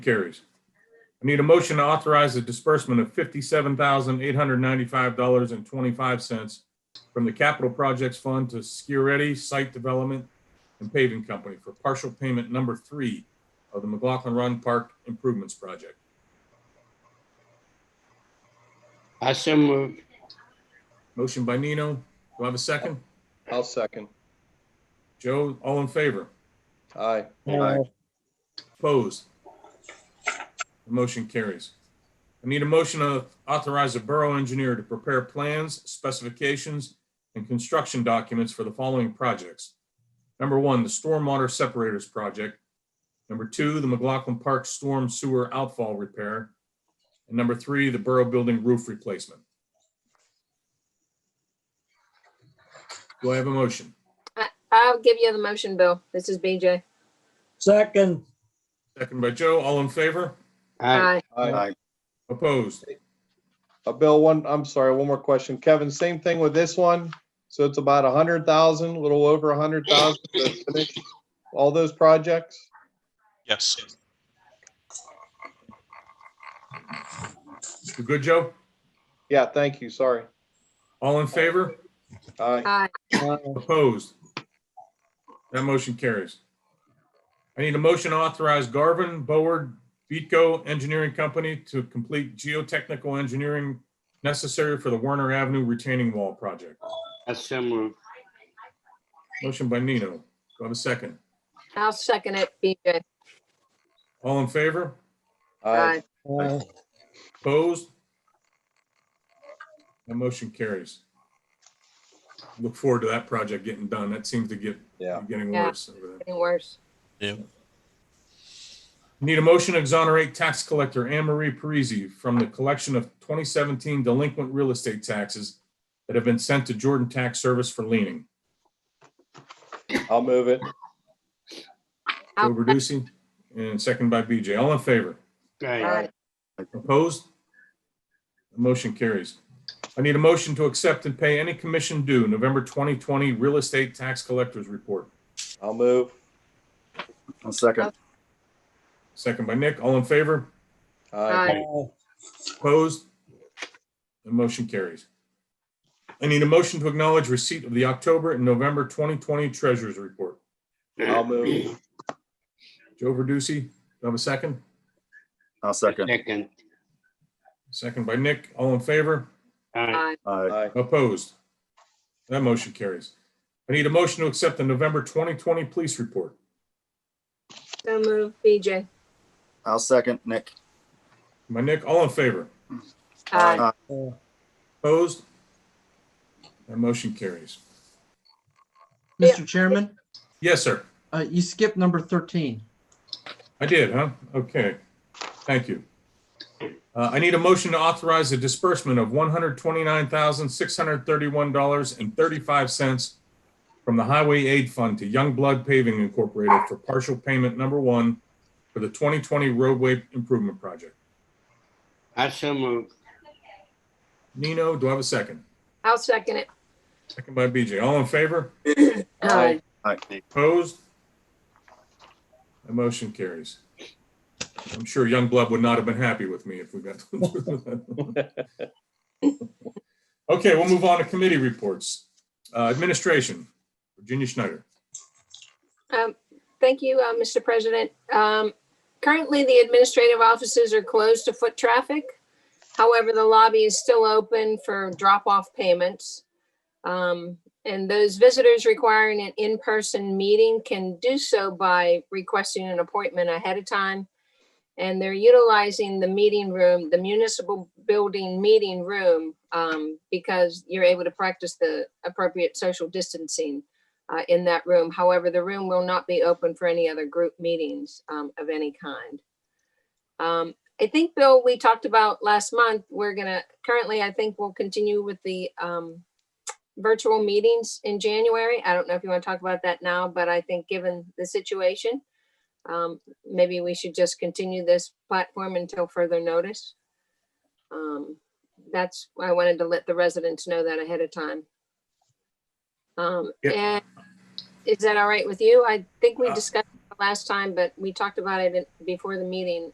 Carries. I need a motion to authorize the disbursement of fifty-seven thousand eight hundred ninety-five dollars and twenty-five cents from the Capital Projects Fund to Skiretti Site Development and Paving Company for partial payment number three of the McLaughlin Run Park Improvements Project. I so move. Motion by Nino. Do I have a second? I'll second. Joe, all in favor? Aye. Opposed? The motion carries. I need a motion to authorize the borough engineer to prepare plans, specifications, and construction documents for the following projects. Number one, the stormwater separators project. Number two, the McLaughlin Park Storm Sewer Outfall Repair. And number three, the borough building roof replacement. Do I have a motion? I'll give you the motion, Bill. This is BJ. Second, Second by Joe, all in favor? Aye. Aye. Aye. Opposed? Uh, Bill, one, I'm sorry, one more question. Kevin, same thing with this one? So it's about a hundred thousand, a little over a hundred thousand to finish all those projects? Yes, You good, Joe? Yeah, thank you, sorry. All in favor? Aye. Aye. Opposed? That motion carries. I need a motion to authorize Garvin, Boward, Beatco Engineering Company to complete geotechnical engineering necessary for the Werner Avenue retaining wall project. I so move. Motion by Nino. Do I have a second? I'll second it, BJ. All in favor? Aye. uh, Opposed? That motion carries. Look forward to that project getting done. That seems to get, Yeah. getting Yeah. worse over there. Getting worse. Need a motion to exonerate tax collector Anne Marie Parisi from the collection of 2017 delinquent real estate taxes that have been sent to Jordan Tax Service for leaning. I'll move it. Joe Verducci, and second by BJ. All in favor? Aye. Aye. Opposed? The Motion carries. I need a motion to accept and pay any commission due November 2020 Real Estate Tax Collectors Report. I'll move. I'll second. Second by Nick. All in favor? Aye. uh, Opposed? The motion carries. I need a motion to acknowledge receipt of the October and November 2020 Treasurers Report. I'll move. Joe Verducci, do I have a second? I'll second. Second. Second by Nick. All in favor? Aye. Aye. Aye. Aye. Opposed? That motion carries. I need a motion to accept the November 2020 Police Report. So move, BJ. I'll second, Nick. By Nick, all in favor? Aye. uh, Opposed? That motion carries. Yeah. Mr. Chairman, Yes, sir. uh, you skipped number 13. I did, huh? Okay, thank you. Uh, I need a motion to authorize the disbursement of one hundred twenty-nine thousand, six hundred thirty-one dollars and thirty-five cents from the Highway Aid Fund to Young Blood Paving Incorporated for partial payment number one for the twenty twenty roadway improvement project. I so move. Nino, do I have a second? I'll second it. Second by BJ. All in favor? Aye. Opposed? The motion carries. I'm sure Youngblood would not have been happy with me if we got. Okay, we'll move on to committee reports. Uh, Administration, Virginia Schneider. Um, Thank you, uh, Mr. President. Um, Currently, the administrative offices are closed to foot traffic. However, the lobby is still open for drop-off payments. Um, And those visitors requiring an in-person meeting can do so by requesting an appointment ahead of time. And they're utilizing the meeting room, the municipal building meeting room, um, because you're able to practice the appropriate social distancing uh, in that room. However, the room will not be open for any other group meetings um, of any kind. Um, I think, Bill, we talked about last month, we're gonna, currently, I think we'll continue with the um, virtual meetings in January. I don't know if you want to talk about that now, but I think given the situation, um, maybe we should just continue this platform until further notice. Um, That's, why I wanted to let the residents know that ahead of time. Um, Yep. And is that all right with you? I think we Uh, discussed it last time, but we talked about it in- before the meeting